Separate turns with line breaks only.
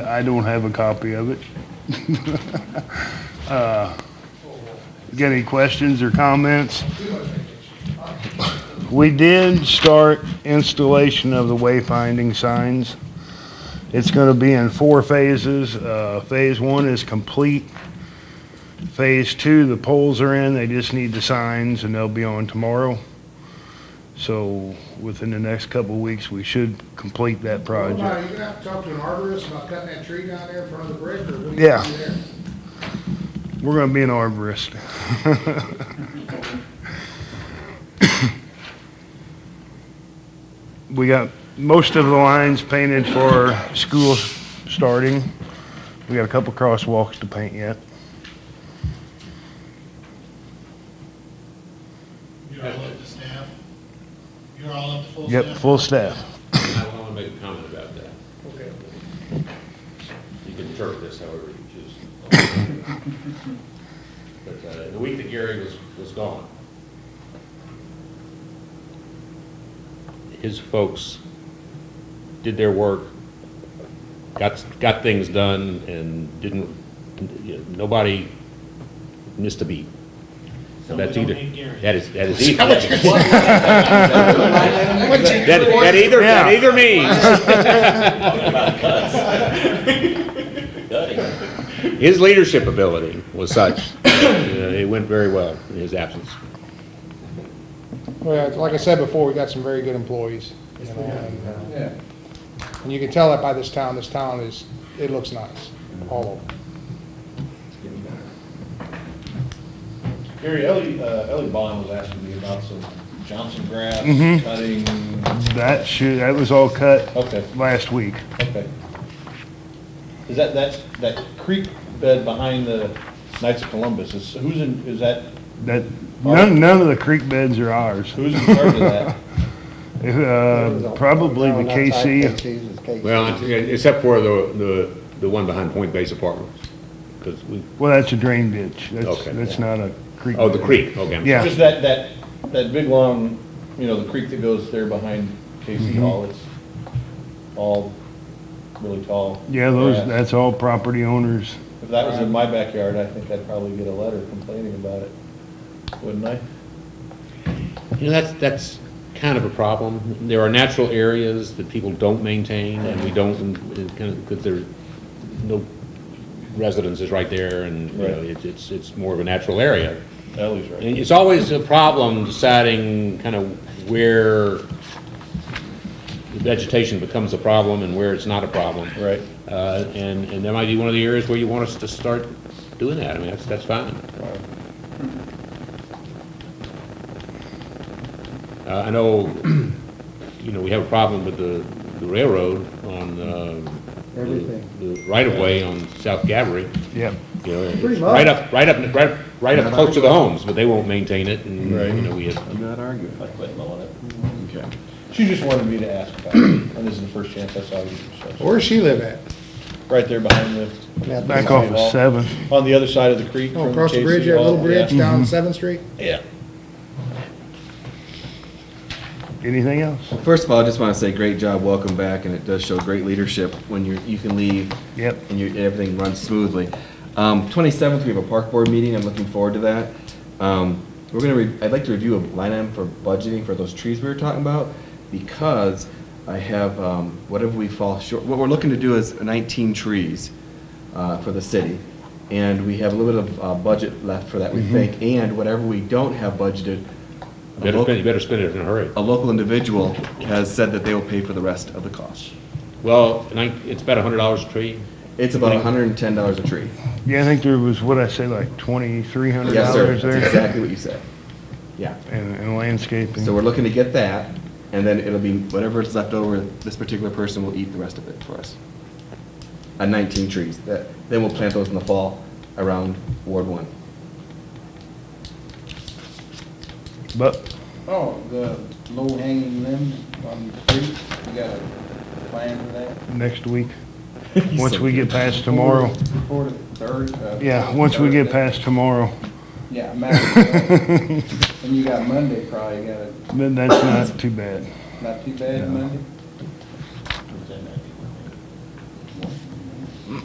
I don't have a copy of it. Uh, Got any questions or comments? We did start installation of the wayfinding signs. It's gonna be in four phases. Uh, phase one is complete. Phase two, the poles are in, they just need the signs and they'll be on tomorrow. So within the next couple of weeks, we should complete that project.
Well, now, you gonna have to talk to an arborist about cutting that tree down there in front of the brick, or what do you
Yeah.
gonna do there?
We're gonna be an arborist. We got most of the lines painted for school starting. We got a couple crosswalks to paint yet.
You're all up to staff? You're all up to full staff?
Yep, full staff.
I want to make a comment about that.
Okay.
You can interpret this however you choose. But uh, the week that Gary was, was gone, his folks did their work, got, got things done, and didn't, you know, nobody missed a beat.
So
So
we
that's
don't
either,
need Gary.
that is, that is either, that, that either, that
Yeah.
either means His leadership ability was such, uh, it went very well in his absence.
Well, like I said before, we got some very good employees, you know, and, uh, and you can tell that by this town, this town is, it looks nice, all over.
Gary, Ellie, uh, Ellie Bond was asking me about some Johnson grass
Mhm.
cutting.
That should, that was all cut
Okay,
last week.
okay. Is that, that's, that creek bed behind the Knights of Columbus, is, who's in, is that,
That, none, none of the creek beds are ours.
who's in charge of that?
Uh, probably the KC.
Well, except for the, the, the one behind Point Base Apartments, because we,
Well, that's a drain ditch. That's,
Okay.
that's not a creek.
oh, the
bed.
creek, okay. I'm sorry.
Yeah.
Just that, that, that big long, you know, the creek that goes there behind Casey
Mm-hmm.
Hall, it's all really tall.
Yeah, those,
grass.
that's all property owners.
If that was in my backyard, I think I'd probably get a letter complaining about it, wouldn't I?
You know, that's, that's kind of a problem. There are natural areas that people don't maintain, and we don't, and kind of, because there, no residence is right there, and, you know,
Right.
it's, it's, it's more of a natural area.
Ellie's right.
And It's always a problem deciding kind of where vegetation becomes a problem and where it's not a problem.
Right.
Uh, And, and that might be one of the areas where you want us to start doing that. I mean, that's, that's fine. Uh, I know, you know, we have a problem with the the railroad on, um, the-
Everything.
the right-of-way on South Gabry.
Yep.
You know,
Pretty
it's
much.
right up, right up, right, right up close to the homes, but they won't maintain it, and,
Right.
you know, we have,
I'm not arguing. I quit mowing it. Okay. She just wanted me to ask about it, and this is the first chance I saw you. so-
Where does she live at?
Right there behind the.
Back off of seven.
On the other side of the creek.
Oh,
from
across the
Casey
bridge, that
Hall,
little bridge
yeah.
Mm-hmm.
down Seventh Street?
Yeah.
Anything else?
First of all, I just want to say, great job, welcome back, and it does show great leadership when you, you can leave.
Yep.
And you, everything runs smoothly. Um, twenty-seventh, we have a park board meeting, I'm looking forward to that. Um, we're gonna, re- I'd like to review a line item for budgeting for those trees we were talking about, because I have, um, whatever we fall short, what we're looking to do is nineteen trees, uh, for the city. And we have a little bit of, uh, budget left for that, we think, and whatever we don't have budgeted. a
better
local-
spend, you better spend it in a hurry.
a local individual has said that they will pay for the rest of the cost.
Well, and I, it's about a hundred dollars a tree.
It's about hundred and ten dollars a tree.
Yeah, I think there was, what I say, like twenty-three hundred
Yes, sir,
dollars
that's
there?
exactly what you said. Yeah,
And, and landscaping.
so we're looking to get that, and then it'll be whatever is left over, this particular person will eat the rest of it for us. Uh, nineteen trees, that, then we'll plant those in the fall around Ward One.
But,
Oh, the low hanging limbs on the creek, you got a plan for that?
next week, once we get past tomorrow,
Before the third? uh,
yeah, once we get
Thursday?
past tomorrow,
Yeah, matter of fact. And you got Monday probably, you got it,
then that's not too bad.
not too bad Monday?